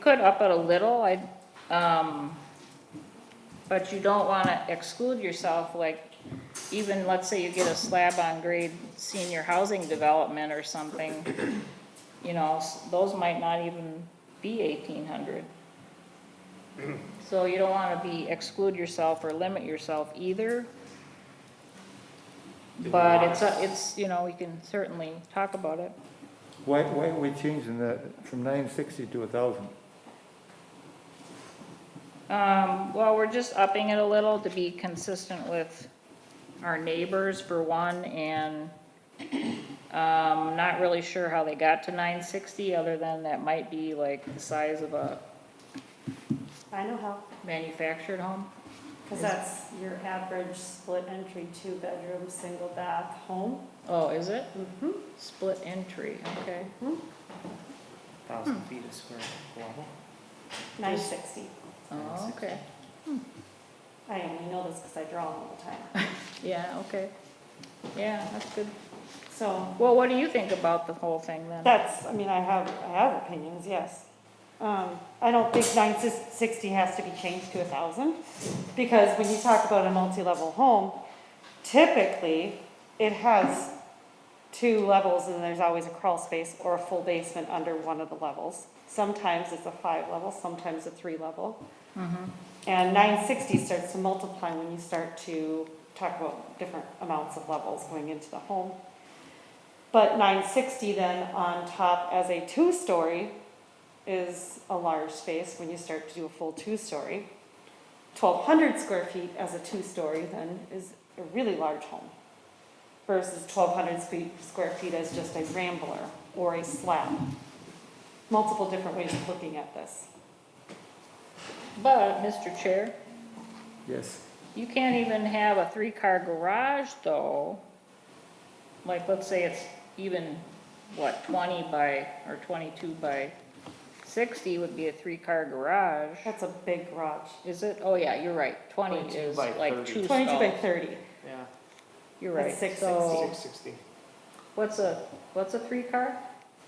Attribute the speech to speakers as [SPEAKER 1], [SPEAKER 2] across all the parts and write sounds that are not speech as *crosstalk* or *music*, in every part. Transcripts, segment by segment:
[SPEAKER 1] could up it a little, I, um, but you don't wanna exclude yourself, like, even, let's say you get a slab on grade senior housing development or something, you know, s- those might not even be eighteen hundred. So you don't wanna be, exclude yourself or limit yourself either. But it's, a- it's, you know, we can certainly talk about it.
[SPEAKER 2] Why, why are we changing that from nine sixty to a thousand?
[SPEAKER 1] Um, well, we're just upping it a little to be consistent with our neighbors for one and, um, not really sure how they got to nine sixty, other than that might be like the size of a
[SPEAKER 3] I know how,
[SPEAKER 1] manufactured home.
[SPEAKER 3] because that's your average split entry, two-bedroom, single bath home.
[SPEAKER 1] Oh, is it?
[SPEAKER 3] Mm-hmm.
[SPEAKER 1] Split entry, okay.
[SPEAKER 4] Thousand
[SPEAKER 1] Hmm.
[SPEAKER 4] feet a square level.
[SPEAKER 3] Nine sixty.
[SPEAKER 1] Oh, okay.
[SPEAKER 3] I only know this because I draw them all the time.
[SPEAKER 1] Yeah, okay. Yeah, that's good.
[SPEAKER 3] So
[SPEAKER 1] Well, what do you think about the whole thing then?
[SPEAKER 3] that's, I mean, I have, I have opinions, yes. Um, I don't think nine sis- sixty has to be changed to a thousand, because when you talk about a multi-level home, typically, it has two levels and there's always a crawl space or a full basement under one of the levels. Sometimes it's a five level, sometimes a three level.
[SPEAKER 1] Mm-hmm.
[SPEAKER 3] And nine sixty starts to multiply when you start to talk about different amounts of levels going into the home. But nine sixty then on top as a two-story is a large space when you start to do a full two-story. Twelve hundred square feet as a two-story then is a really large home versus twelve hundred square feet as just a rambler or a slab. Multiple different ways of looking at this.
[SPEAKER 1] But, Mr. Chair,
[SPEAKER 2] Yes.
[SPEAKER 1] You can't even have a three-car garage though. Like, let's say it's even, what, twenty by, or twenty-two by sixty would be a three-car garage.
[SPEAKER 3] That's a big garage.
[SPEAKER 1] Is it? Oh, yeah, you're right. Twenty
[SPEAKER 4] 22
[SPEAKER 1] is
[SPEAKER 4] by
[SPEAKER 1] like
[SPEAKER 4] 30.
[SPEAKER 1] two
[SPEAKER 3] Twenty-two by
[SPEAKER 1] stalls.
[SPEAKER 3] thirty.
[SPEAKER 4] Yeah,
[SPEAKER 1] You're
[SPEAKER 3] That's
[SPEAKER 1] right.
[SPEAKER 3] six
[SPEAKER 1] So,
[SPEAKER 4] six sixty.
[SPEAKER 1] what's a, what's a three-car?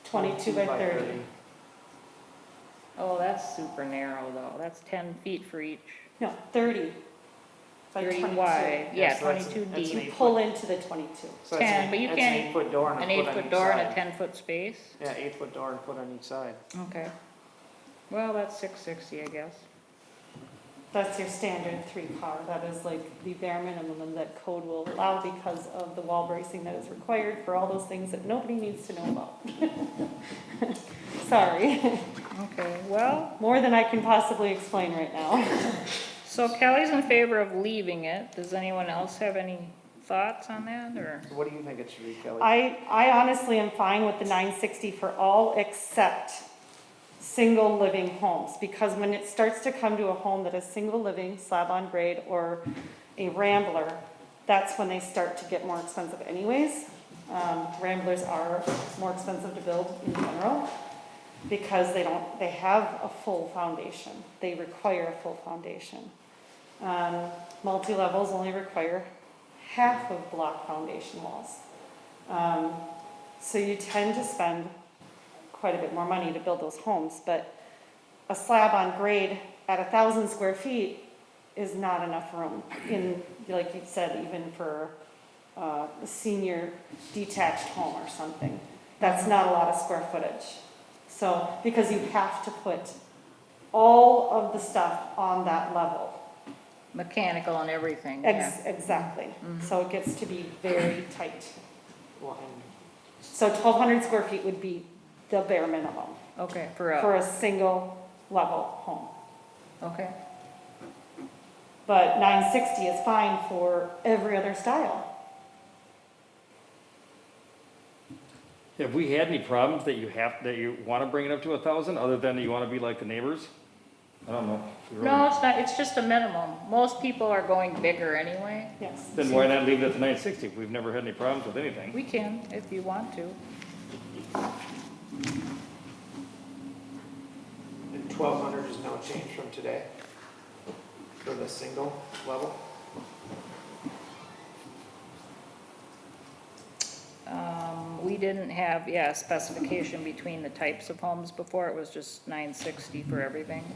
[SPEAKER 3] 22 by 30.
[SPEAKER 1] Oh, that's super narrow though. That's ten feet for each.
[SPEAKER 3] No, thirty by
[SPEAKER 1] Thirty
[SPEAKER 3] twenty-two.
[SPEAKER 1] wide, yeah,
[SPEAKER 4] so that's-
[SPEAKER 1] twenty-two
[SPEAKER 4] that's an
[SPEAKER 1] deep.
[SPEAKER 3] You pull into the twenty-two.
[SPEAKER 4] So that's an
[SPEAKER 1] Ten, but you
[SPEAKER 4] eight- that's
[SPEAKER 1] can't-
[SPEAKER 4] an eight-foot door and a
[SPEAKER 1] An
[SPEAKER 4] foot on
[SPEAKER 1] eight-foot
[SPEAKER 4] each
[SPEAKER 1] door and a
[SPEAKER 4] side.
[SPEAKER 1] ten-foot space?
[SPEAKER 4] Yeah, eight-foot door and a foot on each side.
[SPEAKER 1] Okay. Well, that's six sixty, I guess.
[SPEAKER 3] That's your standard three-car. That is like the bare minimum that code will allow because of the wall bracing that is required for all those things that nobody needs to know about. *laughs* Sorry,
[SPEAKER 1] Okay, well.
[SPEAKER 3] more than I can possibly explain right now.
[SPEAKER 1] So Kelly's in favor of leaving it. Does anyone else have any thoughts on that, or?
[SPEAKER 4] So what do you think it should be, Kelly?
[SPEAKER 3] I, I honestly am fine with the nine sixty for all except single living homes, because when it starts to come to a home that is single living, slab on grade, or a rambler, that's when they start to get more expensive anyways. Um, ramblers are more expensive to build in general, because they don't, they have a full foundation, they require a full foundation. Um, multi-levels only require half of block foundation walls. Um, So you tend to spend quite a bit more money to build those homes, but a slab on grade at a thousand square feet is not enough room in, like you said, even for uh, a senior detached home or something. That's not a lot of square footage. So, because you have to put all of the stuff on that level.
[SPEAKER 1] Mechanical and everything, yeah.
[SPEAKER 3] Ex- Exactly. So it gets to be very tight.
[SPEAKER 4] Well, and
[SPEAKER 3] So twelve hundred square feet would be the bare minimum
[SPEAKER 1] Okay, for
[SPEAKER 3] for
[SPEAKER 1] a,
[SPEAKER 3] a single level home.
[SPEAKER 1] okay,
[SPEAKER 3] But nine sixty is fine for every other style.
[SPEAKER 5] Have we had any problems that you have, that you want to bring it up to a thousand, other than that you want to be like the neighbors?
[SPEAKER 2] I don't know.
[SPEAKER 1] no, it's not, it's just a minimum. Most people are going bigger anyway.
[SPEAKER 3] Yes.
[SPEAKER 5] Then why not leave it at the nine sixty? We've never had any problems with anything.
[SPEAKER 1] We can, if you want to.
[SPEAKER 4] And twelve hundred is no change from today for the single level?
[SPEAKER 1] Um, we didn't have, yeah, a specification between the types of homes before, it was just nine sixty for everything.